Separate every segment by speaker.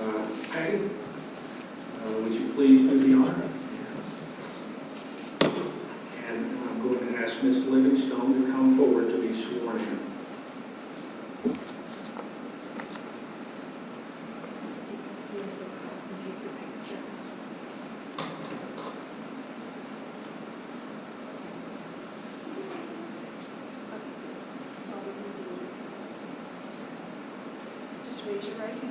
Speaker 1: Okay. Uh, Would you please do the honor? And I'm going to ask Ms. Livingstone to come forward to be sworn in.
Speaker 2: Here's a cup and take your picture. So we can do- Just raise your right hand.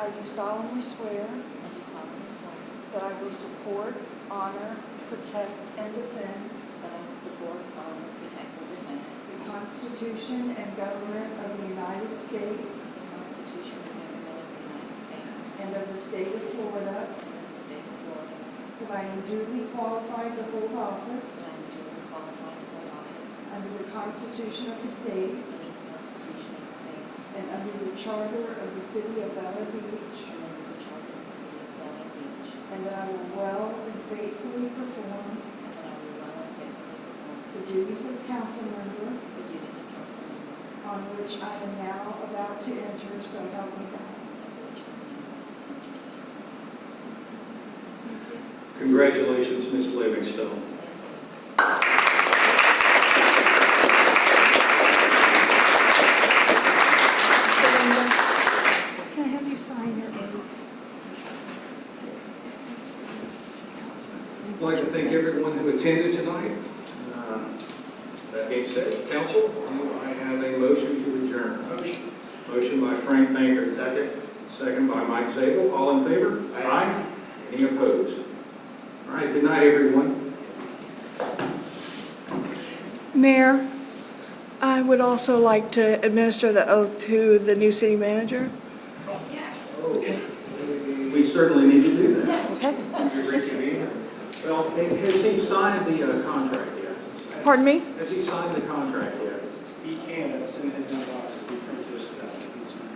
Speaker 2: I do solemnly swear
Speaker 3: I do solemnly swear
Speaker 2: that I will support, honor, protect, and defend
Speaker 3: that I will support, honor, protect, and defend
Speaker 2: the Constitution and government of the United States
Speaker 3: the Constitution and government of the United States
Speaker 2: and of the state of
Speaker 3: and
Speaker 2: Florida,
Speaker 3: of the state of Florida,
Speaker 2: that I am duly qualified to hold office
Speaker 3: that I am duly qualified to hold office
Speaker 2: Under the Constitution of the state
Speaker 3: under the Constitution of the state
Speaker 2: and under the charter of the city of Valor Beach,
Speaker 3: and under the charter of the city of Delaware Beach,
Speaker 2: and that I will well and faithfully perform
Speaker 3: and that I will well and faithfully perform
Speaker 2: the duties of council member
Speaker 3: the duties of council member
Speaker 2: on which I am now about to enter, so help me God.
Speaker 3: of which I am about to enter.
Speaker 1: Congratulations, Ms. Livingstone.
Speaker 2: Can I have you sign your oath?
Speaker 1: I'd like to thank everyone who attended tonight. Uh, That being said, council, do I have a motion to adjourn. Motion. Motion by Frank Baker. Second. Second by Mike Zabel. All in favor? Aye. Any opposed? All right, good night, everyone.
Speaker 4: Mayor, I would also like to administer the oath to the new city manager.
Speaker 1: We certainly need to do that.
Speaker 4: Okay.
Speaker 1: Well, has he signed the uh, contract yet?
Speaker 4: Pardon me?
Speaker 1: Has he signed the contract yet?
Speaker 5: He can, it's in his inbox to be printed, if that's the concern.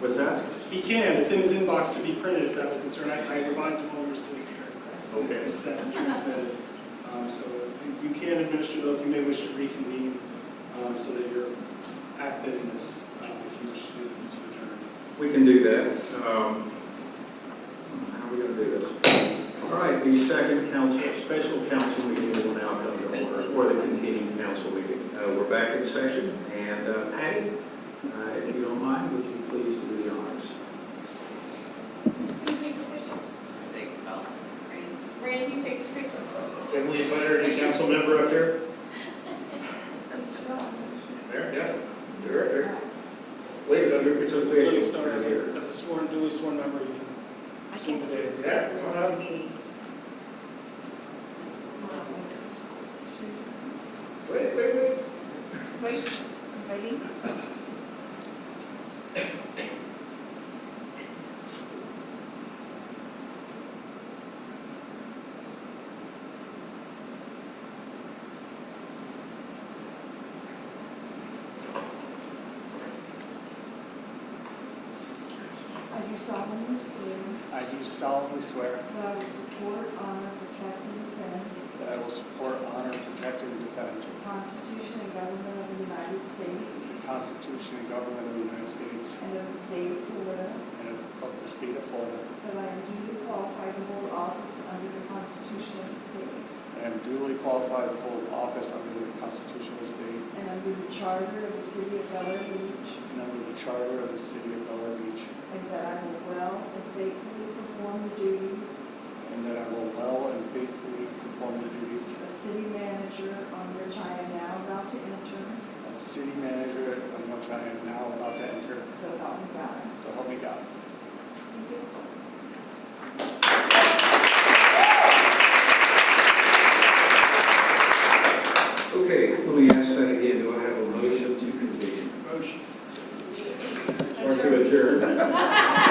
Speaker 1: What's that?
Speaker 5: He can, it's in his inbox to be printed, if that's the concern. I I revised it while we were sitting here.
Speaker 1: Okay.
Speaker 5: It's been sent and transmitted. Um, So you- you can administer those, you may wish to reconvene um, so that you're at business, um, if you wish to do this since you're adjourned.
Speaker 1: We can do that. Um, How are we going to do this? All right, the second council, special council meeting will now come to order, or the continuing council meeting. Uh, We're back in session, and uh, Patty, uh, if you don't mind, would you please do the honors?
Speaker 6: Randy, take your picture.
Speaker 7: Can we invite our new council member up here? Mayor, yeah, you're up here. Wait, that's your, it's
Speaker 5: Just let me
Speaker 7: official.
Speaker 5: start as
Speaker 7: You're
Speaker 5: a-
Speaker 7: here.
Speaker 5: As a sworn, duly sworn member, you can assume the day.
Speaker 7: Yeah, come on up. Wait, wait, wait.
Speaker 6: Wait, ready?
Speaker 2: I do solemnly swear
Speaker 8: I do solemnly swear
Speaker 2: that I will support, honor, protect, and defend
Speaker 8: that I will support, honor, protect, and defend
Speaker 2: the Constitution and government of the United States
Speaker 8: the Constitution and government of the United States
Speaker 2: and of the state of Florida,
Speaker 8: and of- of the state of Florida,
Speaker 2: That I am duly qualified to hold office under the Constitution of the state
Speaker 8: and am duly qualified to hold office under the Constitution of the state
Speaker 2: and under the charter of the city of Bel Air Beach,
Speaker 8: and under the charter of the city of Bel Air Beach,
Speaker 2: and that I will well and faithfully perform the duties
Speaker 8: and that I will well and faithfully perform the duties
Speaker 2: of city manager on which I am now about to enter,
Speaker 8: of city manager on which I am now about to enter.
Speaker 2: so help me God.
Speaker 8: So help me God.
Speaker 1: Okay, let me ask that again. Do I have a motion to convene?
Speaker 5: Motion.
Speaker 1: Or to adjourn?
Speaker 7: uh,